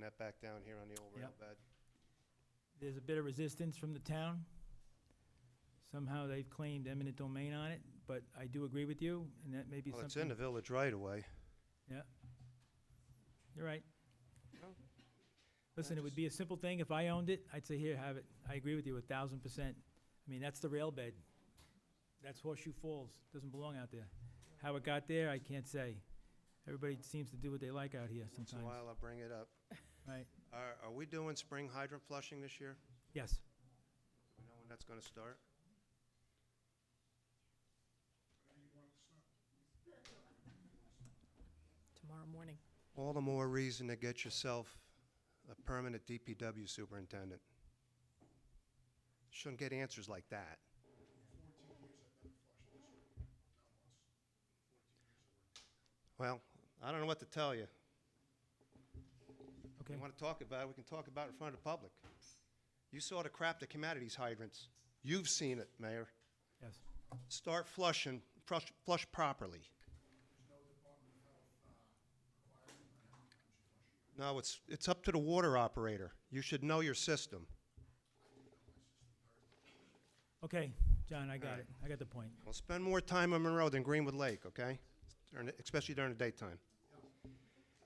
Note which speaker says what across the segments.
Speaker 1: that back down here on the old rail
Speaker 2: Yep.
Speaker 1: bed.
Speaker 2: There's a bit of resistance from the town. Somehow they've claimed eminent domain on it, but I do agree with you, and that may be
Speaker 1: Well, it's in the
Speaker 2: something.
Speaker 1: village right away.
Speaker 2: You're right.
Speaker 1: No.
Speaker 2: Listen, it
Speaker 1: Oh.
Speaker 2: would
Speaker 1: just-
Speaker 2: be a simple thing. If I owned it, I'd say, here, have it. I agree with you a thousand percent. I mean, that's the rail bed. That's Horseshoe Falls. Doesn't belong out there. How it got there, I can't say. Everybody seems to do what they like out here
Speaker 1: Once in a
Speaker 2: sometimes.
Speaker 1: while, I'll bring it up.
Speaker 2: Right.
Speaker 1: Are, are we doing spring hydrant flushing this year?
Speaker 2: Yes.
Speaker 1: Do we know when that's gonna start?
Speaker 3: tomorrow morning.
Speaker 1: All the more reason to get yourself a permanent DPW superintendent. Shouldn't get answers like that. Well, I don't know what to tell you.
Speaker 2: Okay.
Speaker 1: You want to talk about it, we can talk about it in front of the public. You saw the crap that came out of these hydrants. You've seen it, Mayor.
Speaker 2: Yes.
Speaker 1: Start flushing, flush, flush properly. No, it's, it's up to the water operator. You should know your system.
Speaker 2: Okay, John, I got
Speaker 1: Alright.
Speaker 2: it. I got the point.
Speaker 1: Well, spend more time on Monroe than Greenwood Lake, okay? During- Especially during the daytime.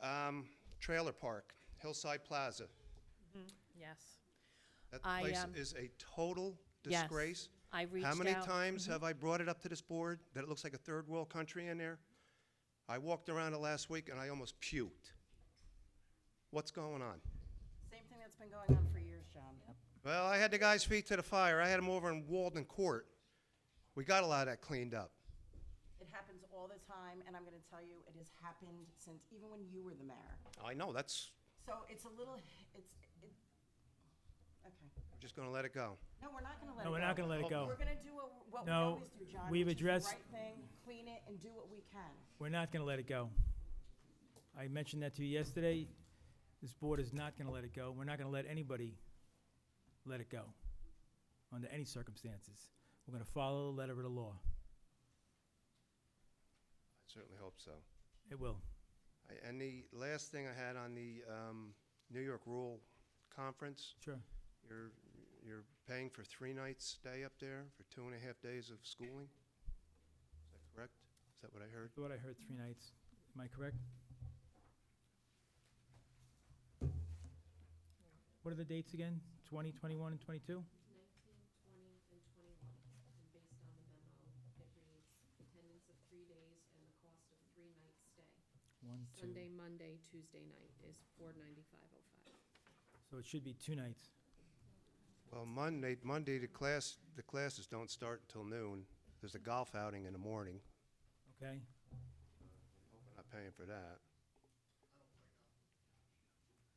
Speaker 1: Um, Trailer Park, Hillside Plaza.
Speaker 3: Yes.
Speaker 1: That
Speaker 3: I,
Speaker 1: place
Speaker 3: um,
Speaker 1: is a total
Speaker 3: Yes.
Speaker 1: disgrace.
Speaker 3: I reached
Speaker 1: How many
Speaker 3: out- Mm-hmm.
Speaker 1: times have I brought it up to this board that it looks like a third world country in there? I walked around it last week and I almost puked. What's going on?
Speaker 4: Same thing that's been going on for years, John.
Speaker 1: Well, I had the guy's feet to the fire. I had him over in Walden Court. We got a lot of that cleaned up.
Speaker 4: It happens all the time, and I'm gonna tell you, it has happened since, even when you were the mayor.
Speaker 1: I know, that's,
Speaker 4: So it's a little, it's, it, okay.
Speaker 1: we're just gonna let it go.
Speaker 4: No, we're not gonna let
Speaker 2: No,
Speaker 4: it go.
Speaker 2: we're not gonna let it
Speaker 1: Oh,
Speaker 2: go.
Speaker 4: We're gonna do what, what we
Speaker 2: No,
Speaker 4: always do, John.
Speaker 2: we've
Speaker 4: which is the
Speaker 2: addressed-
Speaker 4: Right thing, clean it, and do what we can.
Speaker 2: We're not gonna let it go. I mentioned that to you yesterday. This board is not gonna let it go. We're not gonna let anybody let it go under any circumstances. We're gonna follow the letter of the law.
Speaker 1: I certainly hope so.
Speaker 2: It will.
Speaker 1: I- And the last thing I had on the um, New York Rule Conference,
Speaker 2: Sure.
Speaker 1: you're, you're paying for three nights stay up there for two and a half days of schooling? Is that correct? Is that what I heard?
Speaker 2: What I heard, three nights. Am I correct? What are the dates again? Twenty, twenty-one, and twenty-two?
Speaker 5: nineteen, twenty, and twenty-one. And based on the memo, it reads attendance of three days and the cost of three nights stay.
Speaker 2: One, two.
Speaker 5: Sunday, Monday, Tuesday night is four ninety-five oh five.
Speaker 2: So it should be two nights.
Speaker 1: Well, Monday, Monday, the class, the classes don't start until noon. There's a golf outing in the morning.
Speaker 2: Okay?
Speaker 1: We're not paying for that.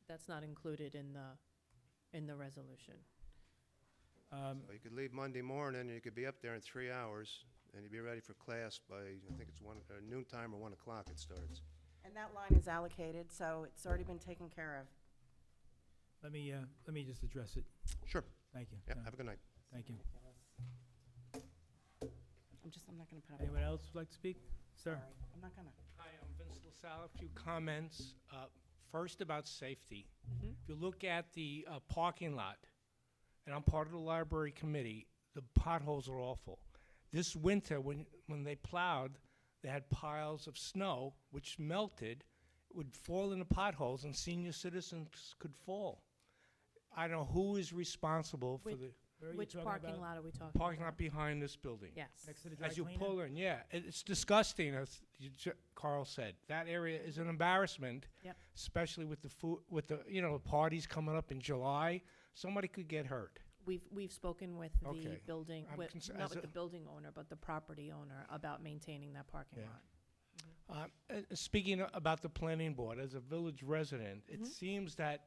Speaker 3: That's not included in the, in the resolution.
Speaker 2: Um,
Speaker 1: Well, You could leave Monday morning, and you could be up there in three hours, and you'd be ready for class by, I think it's one, uh, noon time or one o'clock it starts.
Speaker 4: And that line is allocated, so it's already been taken care of.
Speaker 2: Let me, uh, let me just address it.
Speaker 1: Sure.
Speaker 2: Thank you.
Speaker 1: Yeah,
Speaker 2: No,
Speaker 1: have a good night.
Speaker 2: Thank you.
Speaker 4: I'm just, I'm not gonna put up. with
Speaker 2: Anyone
Speaker 4: it.
Speaker 2: else would like to speak? Sir?
Speaker 4: Sorry, I'm not gonna.
Speaker 6: Hi, I'm Vince LaSalle. A few comments. Uh, First, about safety. If you look at the uh, parking lot, and I'm part of the library committee, the potholes are awful. This winter, when, when they plowed, they had piles of snow which melted, would fall in the potholes, and senior citizens could fall. I don't know who is responsible for
Speaker 3: Which-
Speaker 6: the
Speaker 2: Where are you
Speaker 3: Which
Speaker 2: talking
Speaker 3: parking
Speaker 2: about?
Speaker 3: lot are we talking about?
Speaker 6: parking lot behind this building.
Speaker 3: Yes.
Speaker 2: Next to the dry
Speaker 6: As you
Speaker 2: cleaner?
Speaker 6: pull in, yeah, it- it's disgusting, as you ju- Carl said. That area is an embarrassment.
Speaker 3: Yep.
Speaker 6: Especially with the food, with the, you know, the parties coming up in July, somebody could get hurt.
Speaker 3: We've, we've spoken with the
Speaker 6: Okay.
Speaker 3: building,
Speaker 6: I'm
Speaker 3: with,
Speaker 6: cons-
Speaker 3: not
Speaker 6: as
Speaker 3: with
Speaker 6: a-
Speaker 3: the building owner, but the property owner about maintaining that parking
Speaker 6: Yeah.
Speaker 3: lot.
Speaker 6: Uh, uh, Speaking a- about the planning board, as a village resident, it seems that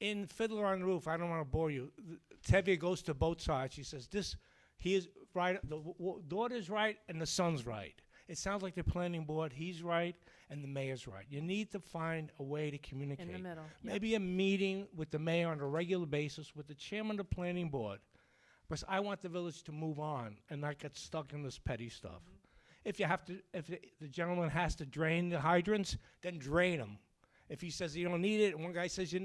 Speaker 6: in Fiddler on the Roof, I don't want to bore you, th- Tevye goes to both sides. She says, this, he is right, the w- w- daughter's right and the son's right. It sounds like the planning board, he's right and the mayor's right. You need to find a way to communicate.
Speaker 3: middle, yeah.
Speaker 6: Maybe a meeting with the mayor on a regular basis, with the chairman of the planning board. Because I want the village to move on and not get stuck in this petty stuff. If you have to, if the- the gentleman has to drain the hydrants, then drain them. If he says you don't need it, and one guy says you